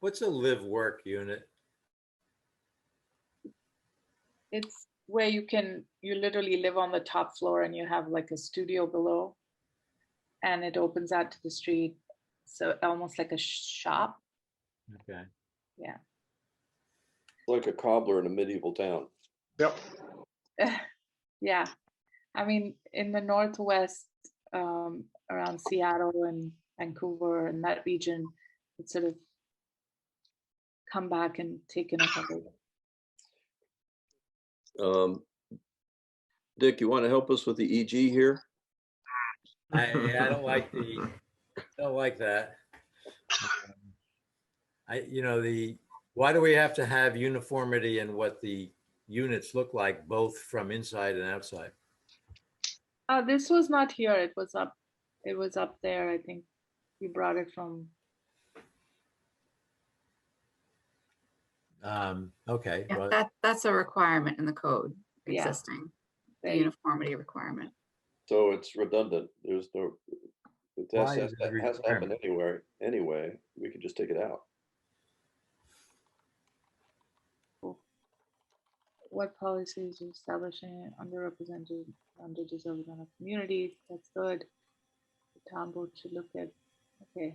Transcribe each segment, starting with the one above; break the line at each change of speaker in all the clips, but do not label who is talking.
What's a live work unit?
It's where you can, you literally live on the top floor and you have like a studio below. And it opens out to the street, so almost like a shop.
Okay.
Like a cobbler in a medieval town.
Yep.
Yeah, I mean, in the northwest, um, around Seattle and Vancouver and that region, it's sort of come back and taken over.
Um, Dick, you want to help us with the EG here?
I, I don't like the, I don't like that. Um, I, you know, the, why do we have to have uniformity in what the units look like, both from inside and outside?
Uh, this was not here. It was up. It was up there. I think you brought it from.
Um, okay,
Yeah,
well,
that, that's a requirement in the code
Yeah.
existing, the
there.
uniformity requirement.
So it's redundant. There's no, it has,
Why
to-
is it a
that has to happen
requirement?
anywhere, anyway. We could just take it out.
What policies are establishing underrepresented, underdeserved on a community? That's good. The town board should look at. Okay.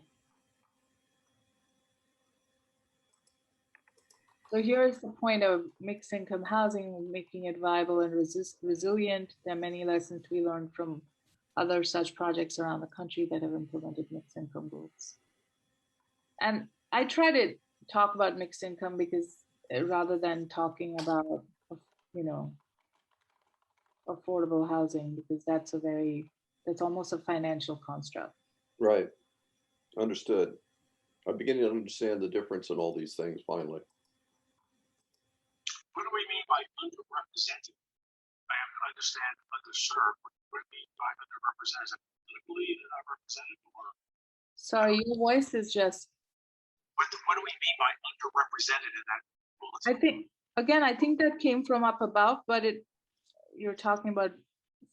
So here's the point of mixed income housing, making it viable and resist, resilient. There are many lessons we learned from other such projects around the country that have implemented mixed income goals. And I try to talk about mixed income because uh, rather than talking about, uh, you know, affordable housing, because that's a very, that's almost a financial construct.
Right. Understood. I'm beginning to understand the difference in all these things finally.
What do we mean by underrepresented? I am- I understand underserved, what do we mean by underrepresented? Politically, they're not represented, or
Sorry, your voice is just,
what, what do we mean by underrepresented in that?
I
bulletin?
think, again, I think that came from up above, but it, you're talking about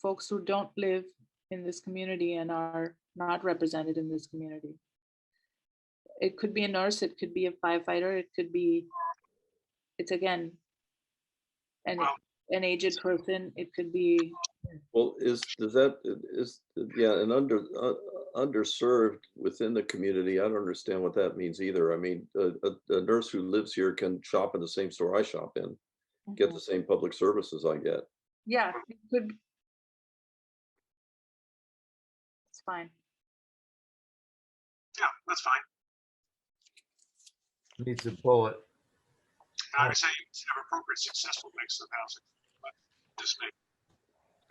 folks who don't live in this community and are not represented in this community. It could be a nurse, it could be a firefighter, it could be, it's again, an,
Well-
an aged person, it could be,
Well, is, does that, is, yeah, and under, uh, underserved within the community, I don't understand what that means either. I mean, a, a- a nurse who lives here can shop in the same store I shop in, get
Mm-hmm.
the same public services I get.
yeah, it could. It's fine.
Yeah, that's fine.
needs a bullet.
And I would say it's never appropriate, successful mix of housing, but just make,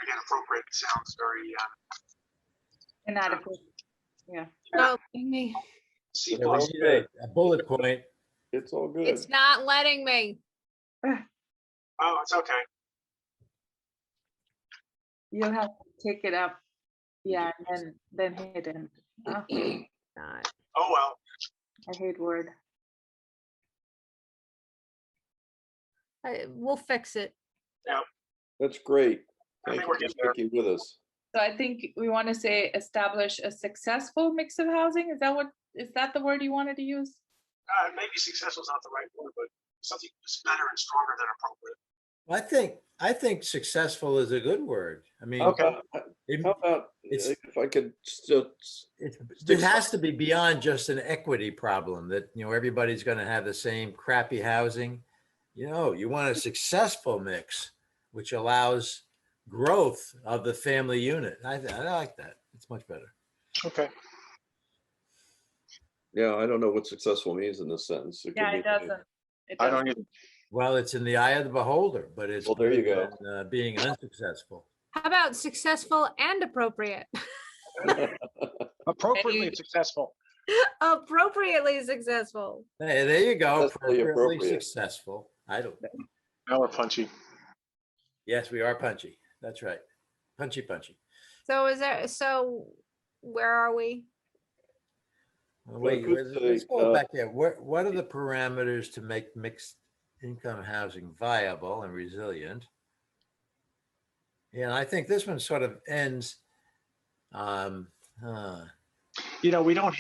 again, appropriate sounds very, uh,
Inadequate.
Oh, me.
see,
Yeah, we need A a bullet point.
It's all good.
It's not letting me.
oh, it's okay.
You'll have to take it up. Yeah, and then, then hit it. Ah, I
God.
Oh, well.
hate word.
I- We'll fix it.
That's great.
I
Thank
think
you
we're
for
getting there.
sticking with us.
So I think we want to say establish a successful mix of housing. Is that what, is that the word you wanted to use?
Uh, maybe successful is not the right word, but something that's better and stronger than
I
appropriate.
think, I think successful is a good word. I mean,
How about,
it-
how about, uh,
It's-
if I could just,
It's, it has to be beyond just an equity problem that, you know, everybody's gonna have the same crappy housing. You know, you want a successful mix, which allows growth of the family unit. I, I like that. It's much better.
Okay.
yeah, I don't know what successful means in this sentence. could
Yeah,
mean-
it doesn't. It
I
doesn't.
don't either.
Well, it's in the eye of the beholder, but it's.
Well, there you
better
go.
than, uh, Being unsuccessful.
How about successful and appropriate?
Appropriately successful.
Appropriately successful.
Hey, there you go.
Successfully
Appropriately
appropriate.
successful. I don't,
Now we're punchy.
yes, we are punchy. That's right. Punchy, punchy.
So is there, so where are we?
Well,
Well, I
Wait,
could
let's- let's
say,
go
uh,
back there. What, what are the parameters to make mixed income housing viable and resilient? Yeah, and I think this one sort of ends, um, huh.
You know, we don't